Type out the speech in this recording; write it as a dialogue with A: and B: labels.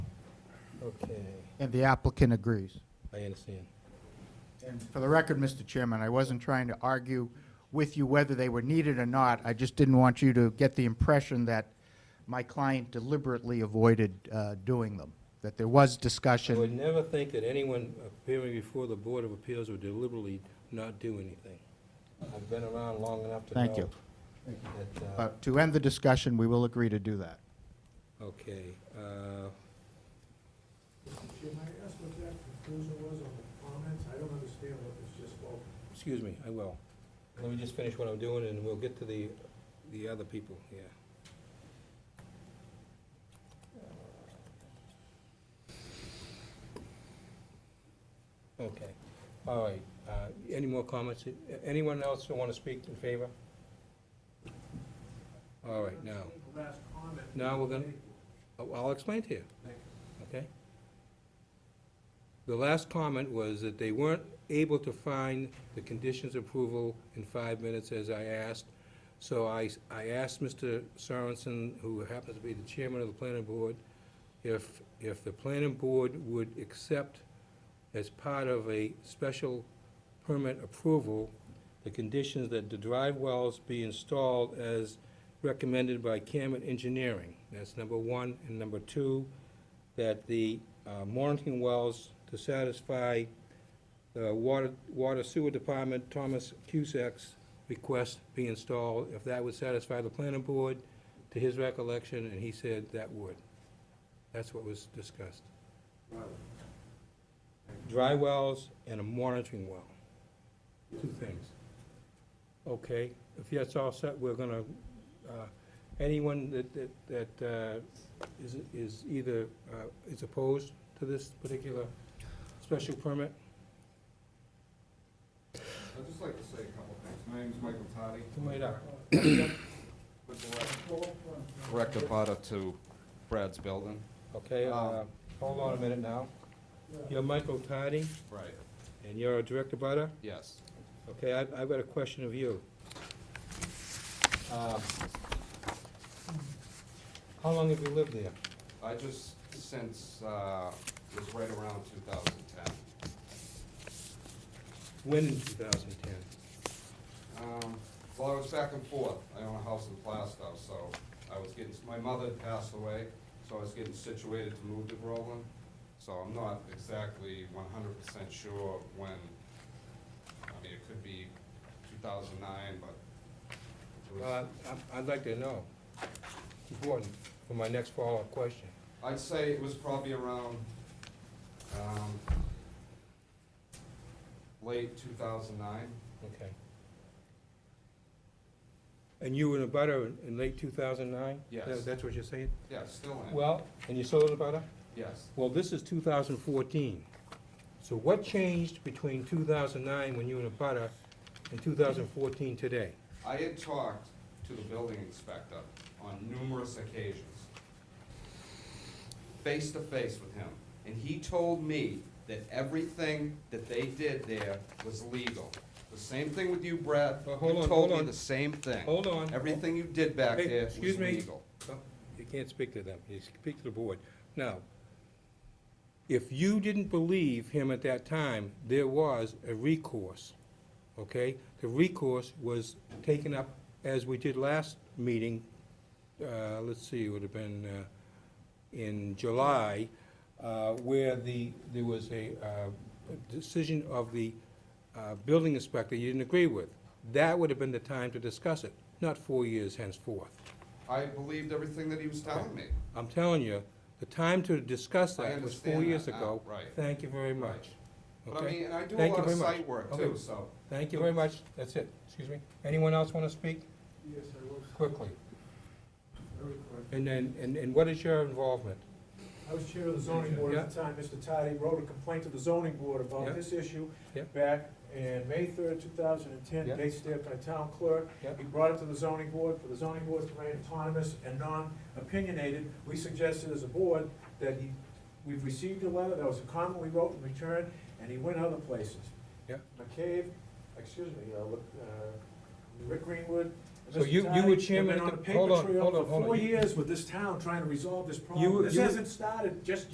A: Okay,
B: and the applicant agrees.
A: I understand.
B: And for the record, Mr. Chairman, I wasn't trying to argue with you whether they were needed or not. I just didn't want you to get the impression that my client deliberately avoided uh, doing them, that there
A: I
B: was
A: would
B: discussion.
A: never think that anyone appearing before the Board of Appeals would deliberately not do anything. I've been around long enough to know.
B: Thank you.
A: that, uh,
B: But to end the discussion, we will agree to do that.
A: Okay, uh,
C: Jim, I asked what that conclusion was on the comments, I don't understand what was just spoken.
A: excuse me, I will. Let me just finish what I'm doing, and we'll get to the, the other people here. Okay, all right. Uh, Any more comments? Anyone else who want to speak in favor? All right, now,
C: The Last comment.
A: Now we're gonna- I'll Oh, I'll explain to you.
C: Thank
A: Okay? The last comment was that they weren't able to find the conditions approval in five minutes, as I asked. So I, I asked Mr. Sorensen, who happens to be the chairman of the planning board, if, if the planning board would accept as part of a special permit approval, the conditions that the drive wells be installed as recommended by Camet Engineering. That's number one. And number two, that the uh, monitoring wells to satisfy the Water water Sewer Department, Thomas Cusack's request be installed, if that would satisfy the planning board, to his recollection, and he said that would. That's what was discussed. Dry wells and a monitoring well, two things. Okay, if that's all set, we're gonna, uh, anyone that, that, that uh, is, is either, uh, is opposed to this particular special permit?
D: I'd just like to say a couple of things. My name is Michael Toddy.
A: Come right up.
C: Uh,
D: With the left Direct abutter to Brad's building.
A: Okay, uh,
D: Um,
A: hold on a minute now.
C: you.
A: You're Michael Tardy,
D: Right.
A: and you're a director butter?
D: Yes.
A: Okay, I- I've got a question of you. Uh, How long have you lived there?
D: I just, since, uh, it was right around two thousand ten.
A: When in 2010?
D: Um, well, I was back and forth. I own a house in Plastow, so I was getting, my mother had passed away, so I was getting situated to move to Groveland. So I'm not exactly one hundred percent sure when, I mean, it could be two thousand nine, but it was.
A: Well, I- Uh, I'd like to know. Important for my next follow-up question.
D: I'd say it was probably around, um, late two thousand nine.
A: Okay. And you were in a butter in in late 2009?
D: Yes.
A: That- That's what you're saying?
D: Yeah, still in,
A: Well, and you sold a butter?
D: yes.
A: Well, this is 2014. So what changed between 2009, when you were in a butter, and 2014 today?
D: I had talked to the building inspector on numerous occasions, face to face with him, and he told me that everything that they did there was legal. The same thing with you, Brad.
A: Well, hold on,
D: You told
A: hold
D: me
A: on.
D: the same thing.
A: Hold on.
D: Everything you did back
A: Hey,
D: there was
A: excuse me.
D: legal.
A: Oh, You can't speak to them, you speak to the board. Now, if you didn't believe him at that time, there was a recourse, okay? The recourse was taken up, as we did last meeting, uh, let's see, it would have been uh, in July, uh, where the, there was a uh, decision of the uh, building inspector you didn't agree with. That would have been the time to discuss it, not four years henceforth.
D: I believed everything that he was telling me.
A: I'm telling you, the time to discuss
D: I
A: that was four
D: understand
A: years
D: that now,
A: ago.
D: right.
A: Thank you very much.
D: But I
A: Okay?
D: mean, and I do a
A: Thank you
D: lot of
A: very much.
D: site work
A: Okay.
D: too, so.
A: Thank you very much, that's it, excuse me. Anyone else want to speak
C: Yes, I was,
A: quickly?
C: very quick.
A: And then, and, and what is your involvement?
C: I was chair of the zoning board at the time, Mr. Toddy wrote a complaint to the zoning board
A: Yeah.
C: about this issue
A: Yeah.
C: back in May third, two thousand and ten,
A: Yeah.
C: based there by town clerk.
A: Yeah.
C: We brought it to the zoning board, for the zoning board to remain autonomous and non-opinionated. We suggested as a board that he, we've received a letter, that was a comment we wrote in return, and he went other places.
A: Yeah.
C: McCabe, excuse me, uh, look, uh, Rick Greenwood. and
A: So you-
C: Mr.
A: you were
C: Toddy have
A: chairman
C: been
A: at
C: on
A: the-
C: a paper
A: hold on,
C: trail
A: hold on,
C: for
A: hold on.
C: Four
A: You-
C: years with this town trying to resolve this
A: You
C: problem.
A: were-
C: This
A: you were-
C: hasn't started just